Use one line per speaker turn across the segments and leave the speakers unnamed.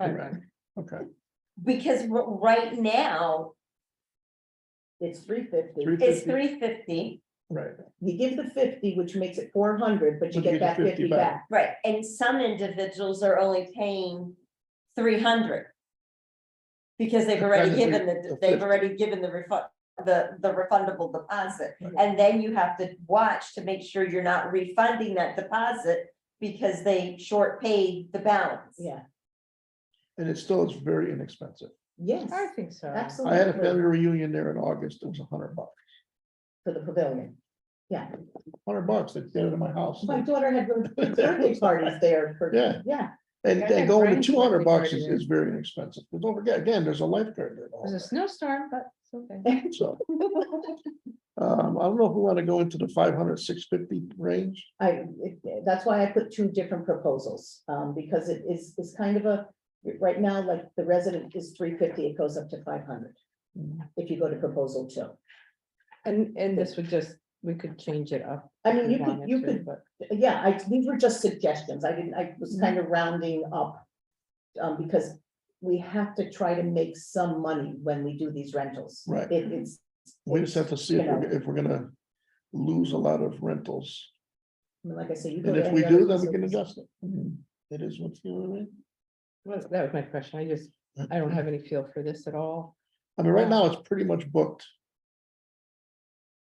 Right. Okay,
Um, because r- right now,
It's three fifty.
Three-
it's
50.
three fifty,
right,
You give the fifty, which makes it four hundred,
But
but you
you
get
get
that
50
fifty
back.
back.
right, and some individuals are only paying three hundred. Because they've already
Depends if
given
we-
the,
the
they've
50.
already given the refund, the, the refundable deposit.
Right.
And then you have to watch to make sure you're not refunding that deposit because they short paid the balance.
Yeah,
and it still is very inexpensive.
yes,
I think so.
I
absolutely.
had a family reunion there in August, it was a hundred bucks,
For the pavilion. Yeah,
hundred bucks, they did it in my house.
my daughter had birthday parties there for,
Yeah.
yeah,
And
I
and
had
going to
friends
two hundred
birthday
bucks is,
party.
is very inexpensive, but don't forget, again, there's a lifeguard there. and all
There's a
that,
snowstorm, but it's okay.
So. Um, I don't know if we want to go into the 500, 650 range,
I, it- that's why I put two different proposals, um, because it is, is kind of a, right now, like, the resident is three fifty, it goes up to five hundred. If you go to proposal two.
And, and this would just, we could change it up.
I
if
mean,
we
you could,
wanted
you
to,
could
But
Yeah, I, these were just suggestions. I didn't, I was
Mm-hmm.
kind of rounding up. Um, because we have to try to make some money when we do these rentals.
Right.
It, it's.
we just have to see if,
You know.
we're- if we're gonna lose a lot of rentals,
I mean, Like I say, you. go
and
to
if we
any
do,
other
then we can
facility,
adjust it. I mean, It is what's going
well, that was my question. I just,
on.
I don't have any feel for this at all.
I mean, right now, it's pretty much booked.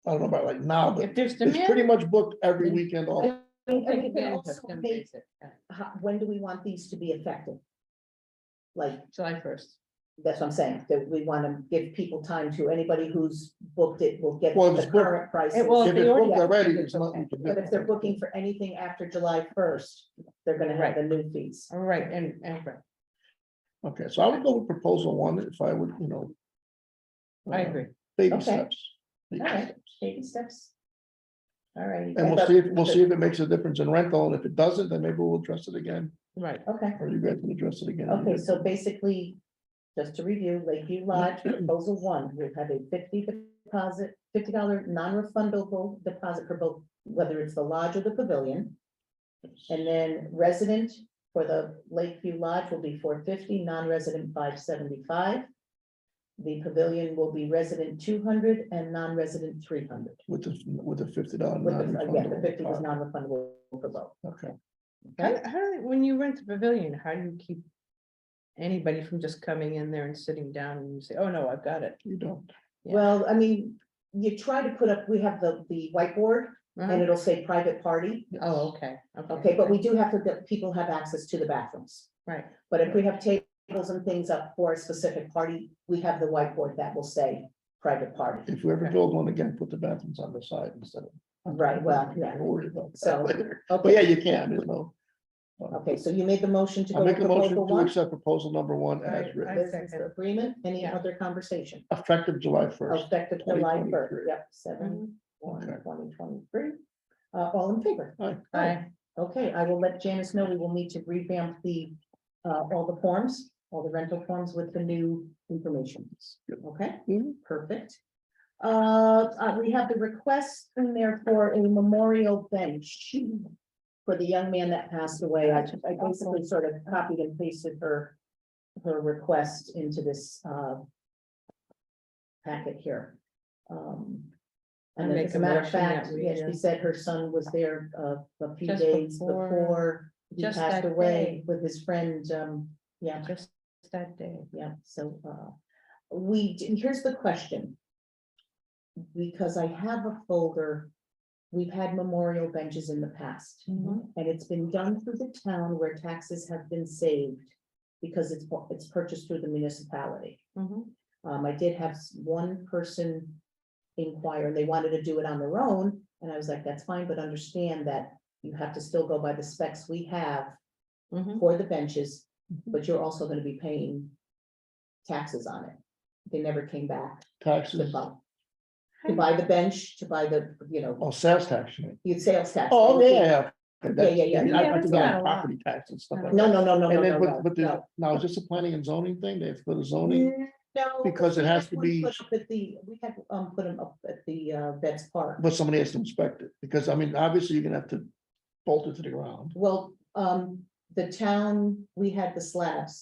I don't know about like now, but
If there's
it's pretty
demand.
much booked every weekend off.
I mean,
we'll
and
take
we can
advantage of
also
them
make-
days at-
how- When do we want these to be effective? Like,
July first.
that's what I'm saying, that we want to give people time to, anybody who's booked it will get
Well, if
the
it's booked-
current price.
It will-
If
they
it's
already
booked
have
already,
tickets
it's not.
booked.
But if they're booking for anything after July first, they're gonna have the new fees.
All right, and, and right,
Okay, so I would go with proposal one if I would, you know.
I
uh,
agree.
Baby
Okay.
steps. baby
Alright.
steps.
Baby steps. All right.
And we'll see, if we'll see if it makes a difference in rental, and if it doesn't, then maybe we'll address it again,
Right.
Okay,
or you guys can address it again.
okay, so basically, just to review, Lakeview Lodge, proposal one, we have a fifty deposit, fifty dollar non-refundable deposit for both, whether it's the lodge or the pavilion. And then resident for the Lakeview Lodge will be four fifty, non-resident five seventy-five. The pavilion will be resident two hundred and non-resident three hundred.
With the, with the fifty dollar.
With the, again, the fifty was non-refundable for both.
Okay,
How, how, do they- when you rent the pavilion, how do you keep anybody from just coming in there and sitting down and say, oh, no, I've got it?
you don't,
Yeah.
Well, I mean, you try to put up, we have the, the whiteboard and
Uh-huh.
it'll say private party.
Oh, okay.
Okay, but we do have to, that people have access to the bathrooms.
Right,
But if we have tables and things up for a specific party, we have the whiteboard that will say private party.
if we ever
Okay.
build one again, put the bathrooms on the side instead of.
Right, Uh, well, yeah.
Don't worry about
So,
that later, but yeah,
Okay,
you can, you know.
okay, so you made the motion to
I
go to
make a motion
proposal
to
one.
accept proposal number one as
Right,
written,
I
Business
second.
agreement, any
Yeah.
other conversation?
effective July first.
Effective July
2023.
first, yep,
Mm-hmm.
seven, one,
Okay.
twenty twenty-three. Uh, all in favor?
bye.
Okay, I will let Janice know we will need to revamp the, uh, all the forms, all the rental forms with the new information. Okay,
Mhm.
perfect. Uh, uh, we have the request in there for a memorial bench for the young man that passed away. I I basically sort of copied and pasted her, her request into this, uh, packet here. Um,
I
and then
make
as a
a
matter of
motion that
fact,
we,
yes,
uh,
she said her son was there, uh, a few
Just
days
before-
before he
just
passed
that
away
day.
with his friend, um, yeah,
Just that day.
yeah, so, uh, we, d- here's the question. Because I have a folder, we've had memorial benches in the past,
Mhm.
and it's been done through the town where taxes have been saved because it's, bu- it's purchased through the municipality.
Mhm.
Um, I did have s- one person inquire, and they wanted to do it on their own, and I was like, that's fine, but understand that you have to still go by the specs we have
Mhm.
for the benches,
Mm-hmm.
but you're also gonna be paying taxes on it. They never came back to
Taxes,
buy, to buy the bench, to buy the, you know,
oh, sales tax. you mean.
your sales tax.
Oh,
everything.
yeah.
Yeah, yeah, yeah.
I mean, I- I
Yeah,
think
it's
that's
not a lot.
Property tax and stuff like that.
No, no, no, no, no,
And
no,
then, but,
no,
but the,
no.
now, is this a planning and zoning thing? They have to go to zoning?
No,
Because it
we
has
had
to
one
be-
put up At the, we had, um, put them up at the, uh, Vets Park.
But somebody has to inspect it, because I mean, obviously, you're gonna have to bolt it to the ground.
Well, um, the town, we had the slabs